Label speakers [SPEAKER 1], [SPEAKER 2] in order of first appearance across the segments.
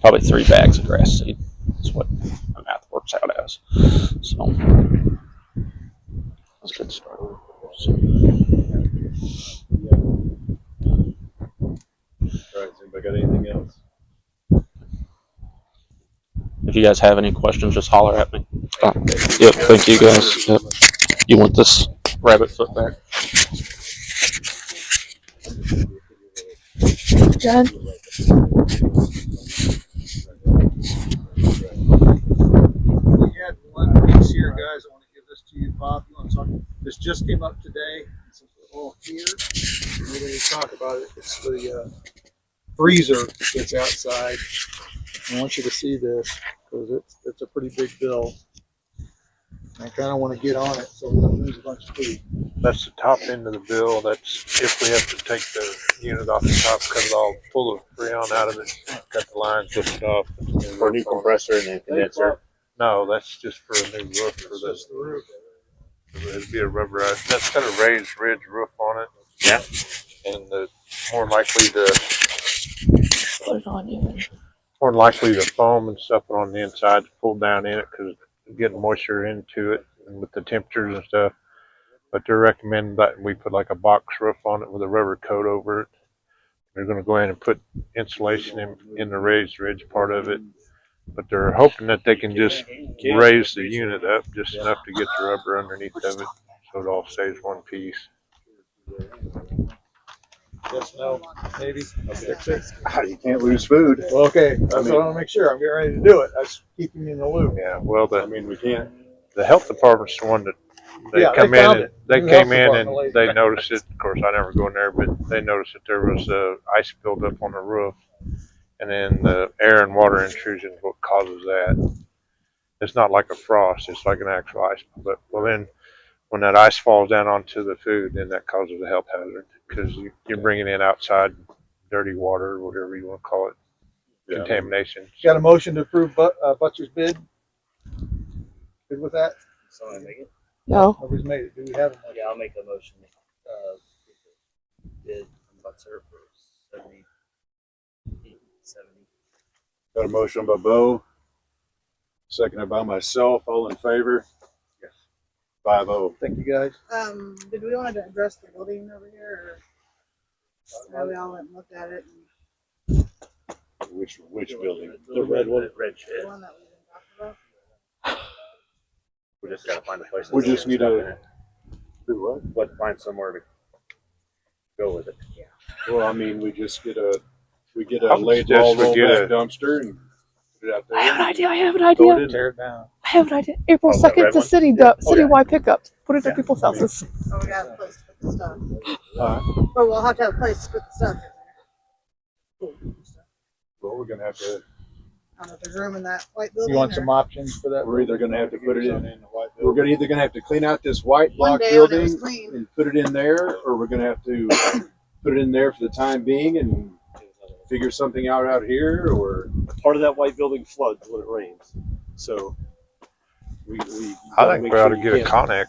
[SPEAKER 1] probably three bags of grass seed. That's what my math works out as. So that's a good start. So,
[SPEAKER 2] All right, has anybody got anything else?
[SPEAKER 1] if you guys have any questions, just holler at me. Yep, thank you guys. Yep. You want this rabbit foot back?
[SPEAKER 3] John,
[SPEAKER 4] We had one piece here, guys, I wanna give this to you, Bob, you wanna talk, this just came up today, since we're all here, we're gonna talk about it, it's the, uh, freezer that's outside. I want you to see this, cause it's, it's a pretty big bill. I kinda wanna get on it, so we're gonna lose a bunch of food.
[SPEAKER 5] That's the top end of the bill. That's if we have to take the unit off the top, cut it all, pull the freon out of it, cut the lines, lift it off.
[SPEAKER 2] For a new compressor and a condenser.
[SPEAKER 5] No, that's just for a new roof for
[SPEAKER 4] It's
[SPEAKER 5] this.
[SPEAKER 4] just the roof.
[SPEAKER 5] It'd be a rubberized, that's got a raised ridge roof on it.
[SPEAKER 2] Yeah.
[SPEAKER 5] And the, more likely the,
[SPEAKER 3] put it on you.
[SPEAKER 5] more likely the foam and stuff on the inside's pulled down in it because getting moisture into it and with the temperatures and stuff. But they're recommending that we put like a box roof on it with a rubber coat over it. They're gonna go ahead and put insulation in, in the raised ridge part of it. But they're hoping that they can just raise the unit up just enough to get the rubber underneath of it, so it all stays one piece.
[SPEAKER 4] Yes, no, maybe, six, six.
[SPEAKER 2] You can't lose food.
[SPEAKER 4] Well, okay, that's what I wanna make sure, I'm getting ready to do it, that's keeping me in the loop.
[SPEAKER 5] Yeah, well,
[SPEAKER 2] I
[SPEAKER 5] the,
[SPEAKER 2] mean, we can't.
[SPEAKER 5] the health department's the one that, they
[SPEAKER 4] Yeah, they
[SPEAKER 5] come
[SPEAKER 4] found
[SPEAKER 5] in, and
[SPEAKER 4] it.
[SPEAKER 5] they
[SPEAKER 4] The health
[SPEAKER 5] came in and
[SPEAKER 4] department
[SPEAKER 5] they noticed it, of course, I never go in there, but they noticed that there was, uh, ice buildup on the roof. And then the air and water intrusion is what causes that. It's not like a frost, it's like an actual ice, but, well, then, when that ice falls down onto the food, then that causes a health hazard, because you, you're bringing in outside dirty water, whatever you wanna call it, contamination.
[SPEAKER 4] Got a motion to approve but, uh, Butcher's bid? Good with that?
[SPEAKER 3] No,
[SPEAKER 4] Nobody's made it. Do we have a motion?
[SPEAKER 6] Yeah, I'll make a motion. uh, Bid from Butzer for seventy. Seventy.
[SPEAKER 2] Got a motion by Bo, seconded by myself. All in favor? Yes. Five oh.
[SPEAKER 4] Thank you, guys.
[SPEAKER 7] Um, did we want to address the building over here, or have we all went and looked at it? and
[SPEAKER 2] Which, which building?
[SPEAKER 6] The red one. Red
[SPEAKER 7] The
[SPEAKER 6] shed.
[SPEAKER 7] one that we didn't talk about?
[SPEAKER 6] We just gotta find a place.
[SPEAKER 2] We
[SPEAKER 6] that's-
[SPEAKER 2] just need a- Do what?
[SPEAKER 6] But find somewhere to go with it.
[SPEAKER 2] Well, I mean, we just get a, we get a
[SPEAKER 5] I would
[SPEAKER 2] laid
[SPEAKER 5] suggest
[SPEAKER 2] roll
[SPEAKER 5] we get
[SPEAKER 2] rollback
[SPEAKER 5] a-
[SPEAKER 2] dumpster and put it out there.
[SPEAKER 3] I
[SPEAKER 7] Ah,
[SPEAKER 3] have an idea. I have an
[SPEAKER 2] Throw it
[SPEAKER 3] idea.
[SPEAKER 2] in there.
[SPEAKER 4] Tear it down.
[SPEAKER 3] I have an idea. April
[SPEAKER 6] Oh, that
[SPEAKER 3] second,
[SPEAKER 6] red
[SPEAKER 3] the
[SPEAKER 6] one?
[SPEAKER 3] city, the
[SPEAKER 6] Oh, yeah.
[SPEAKER 3] citywide pickups. Put it
[SPEAKER 6] Yeah.
[SPEAKER 3] at people's houses.
[SPEAKER 7] Oh, we got a place to put the stuff.
[SPEAKER 2] Alright.
[SPEAKER 7] But we'll have to have a place to put the stuff. in there.
[SPEAKER 2] Well, we're gonna have to,
[SPEAKER 7] I don't know if there's room in that white building.
[SPEAKER 4] You want
[SPEAKER 7] or-
[SPEAKER 4] some options for that?
[SPEAKER 2] we're either gonna have to put it in,
[SPEAKER 4] the white
[SPEAKER 2] we're gonna either gonna have to clean out this white
[SPEAKER 7] One
[SPEAKER 2] block
[SPEAKER 7] day when it was
[SPEAKER 2] building
[SPEAKER 7] clean.
[SPEAKER 2] and put it in there, or we're gonna have to put it in there for the time being and figure something out out here, or
[SPEAKER 8] part of that white building floods when it rains. So we, we
[SPEAKER 5] I think
[SPEAKER 8] make
[SPEAKER 5] we ought
[SPEAKER 8] sure
[SPEAKER 5] to
[SPEAKER 8] you
[SPEAKER 5] get a
[SPEAKER 8] can't-
[SPEAKER 5] Connex,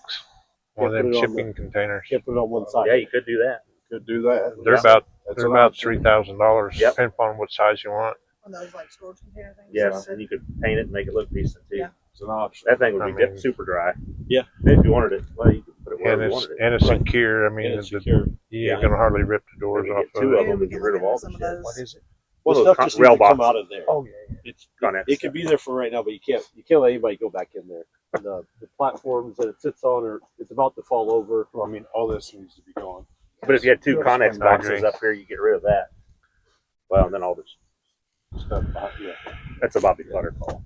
[SPEAKER 5] one
[SPEAKER 8] Can't
[SPEAKER 5] of them
[SPEAKER 8] put it on
[SPEAKER 5] shipping containers.
[SPEAKER 8] Can't put it on one
[SPEAKER 6] Yeah,
[SPEAKER 8] side.
[SPEAKER 6] you could do that.
[SPEAKER 2] could do that.
[SPEAKER 5] They're about,
[SPEAKER 2] That's
[SPEAKER 5] they're
[SPEAKER 2] an
[SPEAKER 5] about
[SPEAKER 2] option.
[SPEAKER 5] three thousand dollars,
[SPEAKER 6] Yep.
[SPEAKER 5] depending upon what size you want.
[SPEAKER 7] One of those like storage container things.
[SPEAKER 6] Yes, and you could paint it and make it look decent too.
[SPEAKER 7] Yeah.
[SPEAKER 2] It's an option.
[SPEAKER 6] That thing would be
[SPEAKER 5] I mean-
[SPEAKER 6] dip- super dry.
[SPEAKER 8] Yeah.
[SPEAKER 6] If you wanted it, well, you could put it
[SPEAKER 5] And
[SPEAKER 6] wherever you
[SPEAKER 5] it's,
[SPEAKER 6] wanted it.
[SPEAKER 5] and it's
[SPEAKER 8] Right.
[SPEAKER 5] secure, I mean,
[SPEAKER 8] And it's
[SPEAKER 5] the-
[SPEAKER 8] secure.
[SPEAKER 5] you ain't
[SPEAKER 6] Yeah.
[SPEAKER 5] gonna hardly rip the doors
[SPEAKER 6] Maybe
[SPEAKER 5] off
[SPEAKER 6] get
[SPEAKER 5] of
[SPEAKER 6] two
[SPEAKER 5] it.
[SPEAKER 6] of them
[SPEAKER 7] Maybe we
[SPEAKER 6] and
[SPEAKER 7] can
[SPEAKER 6] get rid
[SPEAKER 7] look
[SPEAKER 6] of all
[SPEAKER 7] into
[SPEAKER 6] the
[SPEAKER 7] some of
[SPEAKER 6] shit.
[SPEAKER 4] What
[SPEAKER 7] those.
[SPEAKER 4] is it?
[SPEAKER 8] Well,
[SPEAKER 6] Those
[SPEAKER 8] the stuff
[SPEAKER 6] con-
[SPEAKER 8] just
[SPEAKER 6] rail
[SPEAKER 8] needs to come
[SPEAKER 6] boxes.
[SPEAKER 8] out of there.
[SPEAKER 4] Oh, yeah, yeah.
[SPEAKER 8] It's
[SPEAKER 6] Connex
[SPEAKER 8] it
[SPEAKER 6] stuff.
[SPEAKER 8] could be there for right now, but you can't you can't let anybody go back in there. And the, the platforms that it sits on are it's about to fall over.
[SPEAKER 2] Well, I mean, all this needs to be gone.
[SPEAKER 6] But if you had two
[SPEAKER 5] Yes,
[SPEAKER 6] Connex
[SPEAKER 5] I agree.
[SPEAKER 6] boxes up here, you get rid of that. Well, and then all this,
[SPEAKER 2] Stuff, behind- yeah.
[SPEAKER 6] that's a Bobby Clutter call.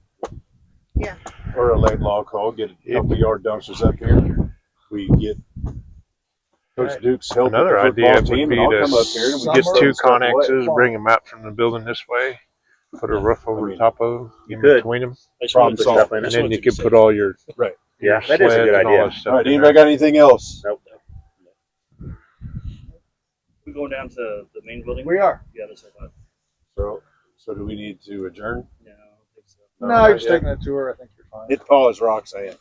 [SPEAKER 2] Or a late law call, get a couple yard dumpsters up here. We get Coach Duke's help. with the
[SPEAKER 5] Another
[SPEAKER 2] football
[SPEAKER 5] idea would
[SPEAKER 2] team, and
[SPEAKER 5] be
[SPEAKER 2] I'll
[SPEAKER 5] to
[SPEAKER 2] come up here and we
[SPEAKER 5] Get
[SPEAKER 2] can
[SPEAKER 4] Summer
[SPEAKER 5] two
[SPEAKER 2] throw stuff away.
[SPEAKER 5] Connexes, bring them out from the building this way, put a roof
[SPEAKER 2] I
[SPEAKER 5] over the
[SPEAKER 2] mean-
[SPEAKER 5] top of them,
[SPEAKER 6] You
[SPEAKER 5] in
[SPEAKER 6] could.
[SPEAKER 5] between them,
[SPEAKER 8] I just
[SPEAKER 2] Problem
[SPEAKER 8] wanted to-
[SPEAKER 2] solved.
[SPEAKER 8] I just
[SPEAKER 6] And
[SPEAKER 5] and
[SPEAKER 8] wanted
[SPEAKER 5] then you
[SPEAKER 8] to
[SPEAKER 5] could
[SPEAKER 8] say-
[SPEAKER 5] put all your.
[SPEAKER 2] Right.
[SPEAKER 5] your
[SPEAKER 6] Yeah, that is a
[SPEAKER 5] sleds
[SPEAKER 6] good
[SPEAKER 5] and all
[SPEAKER 6] idea.
[SPEAKER 5] that stuff
[SPEAKER 2] All right,
[SPEAKER 5] in
[SPEAKER 2] anybody
[SPEAKER 5] there.
[SPEAKER 2] got anything else?
[SPEAKER 6] Nope.
[SPEAKER 9] We're going down to the main building.
[SPEAKER 4] We are.
[SPEAKER 9] Yeah, that's what I thought.
[SPEAKER 2] So, so do we need to adjourn?
[SPEAKER 9] Yeah, I don't think so.
[SPEAKER 4] No, you're
[SPEAKER 2] not
[SPEAKER 4] just
[SPEAKER 2] yet.
[SPEAKER 4] taking a tour. I think you're fine.
[SPEAKER 2] Hit pause, Roxanne.